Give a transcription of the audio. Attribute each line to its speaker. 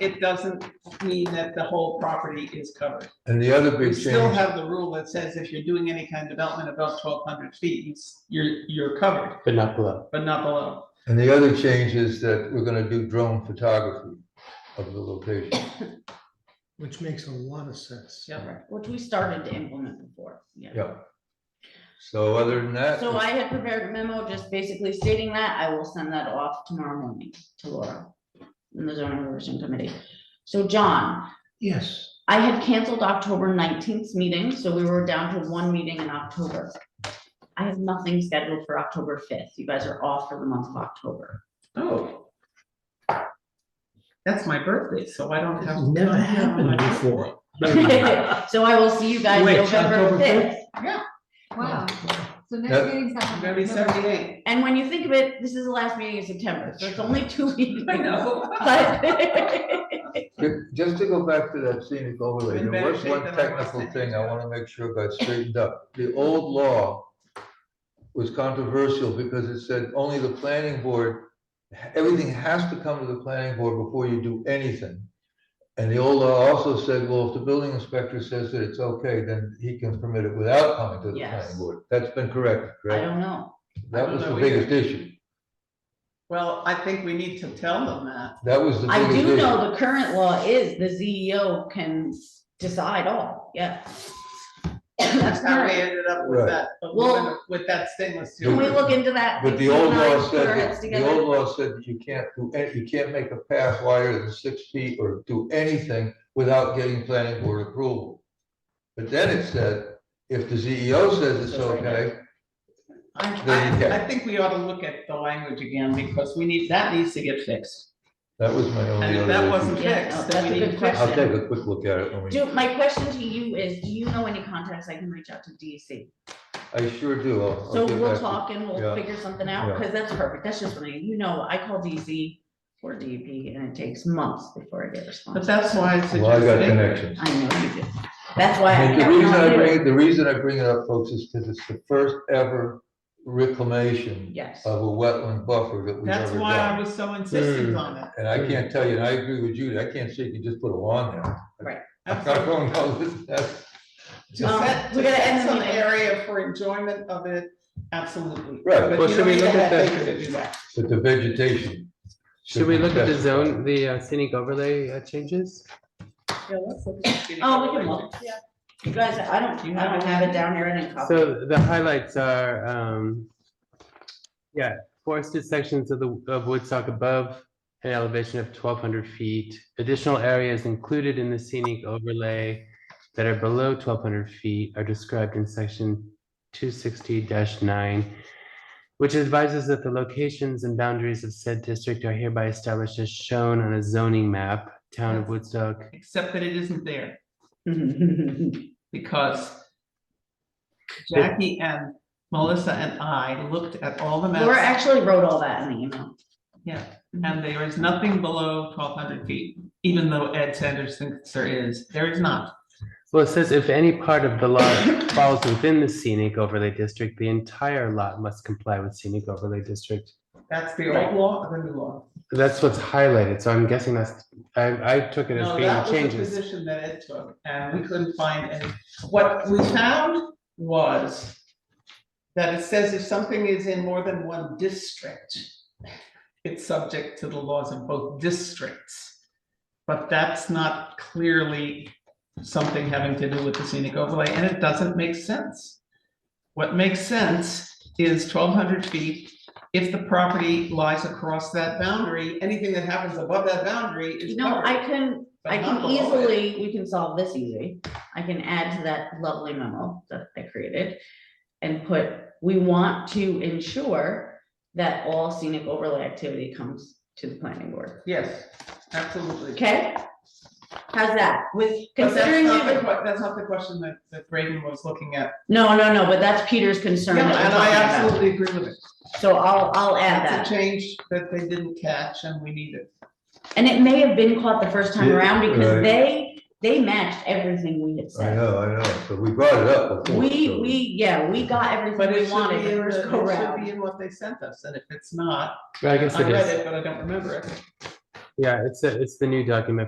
Speaker 1: it doesn't mean that the whole property is covered.
Speaker 2: And the other
Speaker 1: We
Speaker 2: big
Speaker 1: still
Speaker 2: change,
Speaker 1: have the rule that says if you're doing any kind of development above twelve hundred feet, it's- you're, you're covered,
Speaker 3: but not below.
Speaker 1: but not below.
Speaker 2: and the other change is that we're gonna do drone photography of the location.
Speaker 4: Which makes a lot of sense.
Speaker 1: Yeah.
Speaker 5: Correct, which we started to implement before, yeah.
Speaker 2: Yeah. So other than that,
Speaker 5: So I had prepared a memo just basically stating that, I will send that off tomorrow morning to Laura in the zoning revision committee. So John,
Speaker 4: Yes,
Speaker 5: I had canceled October nineteenth meeting, so we were down to one meeting in October. I have nothing scheduled for October fifth, you guys are off for the month of October.
Speaker 1: Oh. That's my birthday, so I don't have.
Speaker 4: never happened before.
Speaker 5: So I will see you guys
Speaker 4: Which,
Speaker 5: November
Speaker 4: October
Speaker 5: fifth.
Speaker 4: 5th?
Speaker 5: Yeah,
Speaker 6: Wow, so
Speaker 2: Yeah.
Speaker 6: next meeting's not.
Speaker 1: I'm gonna be seventy-eight.
Speaker 5: and when you think of it, this is the last meeting in September, so it's only two weeks.
Speaker 1: I know.
Speaker 5: But
Speaker 2: ju- just to go back to that scenic overlay,
Speaker 1: In
Speaker 2: there
Speaker 1: better
Speaker 2: was
Speaker 1: shape
Speaker 2: one
Speaker 1: than I was
Speaker 2: technical
Speaker 1: then.
Speaker 2: thing I wanna make sure got straightened up. The old law was controversial because it said only the planning board, everything has to come to the planning board before you do anything. And the old law also said, well, if the building inspector says that it's okay, then he can permit it without coming to the
Speaker 5: Yes.
Speaker 2: planning board. That's been corrected,
Speaker 5: I
Speaker 2: correct?
Speaker 5: don't know,
Speaker 2: That was
Speaker 1: don't
Speaker 2: the
Speaker 1: know either.
Speaker 2: biggest issue.
Speaker 1: Well, I think we need to tell them that.
Speaker 2: That was the
Speaker 5: I
Speaker 2: biggest
Speaker 5: do
Speaker 2: issue.
Speaker 5: know the current law is the CEO can decide all, yeah.
Speaker 1: That's how we
Speaker 5: current.
Speaker 1: ended up with
Speaker 2: Right.
Speaker 1: that,
Speaker 5: Well-
Speaker 1: with that stainless
Speaker 5: Can
Speaker 1: steel.
Speaker 5: we look into that?
Speaker 2: But the old
Speaker 5: Nine
Speaker 2: law said,
Speaker 5: permits
Speaker 2: that- the
Speaker 5: together?
Speaker 2: old law said that you can't do, any- you can't make a path wider than six feet or do anything without getting planning board approval. But then it said, if the CEO says it's
Speaker 5: That's right.
Speaker 2: okay,
Speaker 1: I,
Speaker 2: There you go.
Speaker 1: I, I think we ought to look at the language again, because we need, that needs to get fixed.
Speaker 2: that was my
Speaker 1: And
Speaker 2: only
Speaker 1: if that
Speaker 2: other
Speaker 1: wasn't
Speaker 2: issue.
Speaker 5: Yeah, no,
Speaker 1: fixed,
Speaker 5: that's
Speaker 1: then
Speaker 5: a
Speaker 1: we
Speaker 5: good
Speaker 1: need to fix
Speaker 5: question.
Speaker 1: it.
Speaker 2: I'll take a quick look at it. when we-
Speaker 5: Do, my question to you is, do you know any contacts I can reach out to DEC?
Speaker 2: I sure do. I'll- I'll
Speaker 5: So
Speaker 2: get
Speaker 5: we'll
Speaker 2: back to-
Speaker 5: talk and we'll
Speaker 2: yeah,
Speaker 5: figure something out,
Speaker 2: yeah.
Speaker 5: because that's perfect, that's just what I, you know, I call DEC or DEP, and it takes months before I get
Speaker 1: But
Speaker 5: a response.
Speaker 1: that's why I
Speaker 2: Well, I got
Speaker 1: suggested, it.
Speaker 2: connections.
Speaker 5: I know you do, that's why.
Speaker 2: And The
Speaker 5: kept
Speaker 2: reason I
Speaker 5: on
Speaker 2: bring,
Speaker 5: doing-
Speaker 2: it- the reason I bring it up, folks, is because it's the first ever reclamation
Speaker 5: Yes,
Speaker 2: of a wetland buffer that we've
Speaker 1: that's
Speaker 2: ever
Speaker 1: why I
Speaker 2: done.
Speaker 1: was so insistent
Speaker 3: Hmm.
Speaker 1: on it.
Speaker 2: And I can't tell you, and I agree with you, I can't say you just put a lawn there. I
Speaker 1: Absolutely.
Speaker 2: don't know, this- that's,
Speaker 1: To
Speaker 5: Um,
Speaker 1: set,
Speaker 5: we
Speaker 1: to
Speaker 5: gotta
Speaker 1: set
Speaker 5: end the
Speaker 1: some
Speaker 5: meeting.
Speaker 1: area for enjoyment of it, absolutely.
Speaker 2: Right.
Speaker 1: But
Speaker 3: Well,
Speaker 1: you
Speaker 3: should
Speaker 1: don't
Speaker 3: we
Speaker 1: need to
Speaker 3: look at
Speaker 1: have
Speaker 3: that-
Speaker 1: acre to do that.
Speaker 2: but the vegetation.
Speaker 3: Should we look at the
Speaker 2: be
Speaker 3: zone, the uh, scenic overlay uh, changes?
Speaker 5: oh, we can look, yeah, you guys, I don't,
Speaker 1: You
Speaker 5: I don't
Speaker 1: haven't-
Speaker 5: have it down here in a copy.
Speaker 3: So the highlights are, um, yeah, forested sections of the, of Woodstock above an elevation of twelve hundred feet. Additional areas included in the scenic overlay that are below twelve hundred feet are described in section two sixty nine, which advises that the locations and boundaries of said district are hereby established as shown on a zoning map, town of Woodstock.
Speaker 1: Except that it isn't there, because Jackie and Melissa and I looked at all the
Speaker 5: Laura
Speaker 1: maps,
Speaker 5: actually wrote all that in the email.
Speaker 1: and there is nothing below twelve hundred feet, even though Ed Sanders thinks there is, there is not.
Speaker 3: Well, it says if any part of the lot falls within the scenic overlay district, the entire lot must comply with scenic overlay district.
Speaker 1: That's the old law or the new law?
Speaker 3: That's what's highlighted, so I'm guessing that's, I, I took it as
Speaker 1: No,
Speaker 3: being
Speaker 1: that was the
Speaker 3: changes.
Speaker 1: position that Ed took, and we couldn't find any. What we found was that it says if something is in more than one district, it's subject to the laws of both districts. But that's not clearly something having to do with the scenic overlay, and it doesn't make sense. What makes sense is twelve hundred feet. If the property lies across that boundary, anything that happens above that boundary is
Speaker 5: You know,
Speaker 1: covered.
Speaker 5: I can,
Speaker 1: but
Speaker 5: I
Speaker 1: not
Speaker 5: can
Speaker 1: below it.
Speaker 5: easily, we can solve this easy. I can add to that lovely memo that I created. And put, we want to ensure that all scenic overlay activity comes to the planning board.
Speaker 1: Yes, absolutely.
Speaker 5: Okay? How's that? With
Speaker 1: But that's
Speaker 5: considering,
Speaker 1: not the
Speaker 5: it-
Speaker 1: que- That's not the question that, that Braden was looking at.
Speaker 5: no, no, no, but that's Peter's concern.
Speaker 1: And
Speaker 5: that we're
Speaker 1: I
Speaker 5: talking about.
Speaker 1: absolutely agree with it.
Speaker 5: So I'll, I'll add that.
Speaker 1: That's a change that they didn't catch and we need it.
Speaker 5: And it may have been caught the first time
Speaker 2: Yeah,
Speaker 5: around because
Speaker 2: right.
Speaker 5: they, they matched everything we had
Speaker 2: I
Speaker 5: said.
Speaker 2: know, I know, so we brought it up before.
Speaker 5: We,
Speaker 2: so-
Speaker 5: we, yeah, we got
Speaker 1: But
Speaker 5: everything
Speaker 1: it
Speaker 5: we
Speaker 1: should
Speaker 5: wanted
Speaker 1: be
Speaker 5: the
Speaker 1: in,
Speaker 5: first
Speaker 1: the-
Speaker 5: go
Speaker 1: it should
Speaker 5: round.
Speaker 1: be in what they sent us. And if it's not,
Speaker 3: Well, I guess
Speaker 1: I
Speaker 3: it
Speaker 1: read
Speaker 3: is,
Speaker 1: it, but I don't remember it.
Speaker 3: yeah, it's, a- it's the new document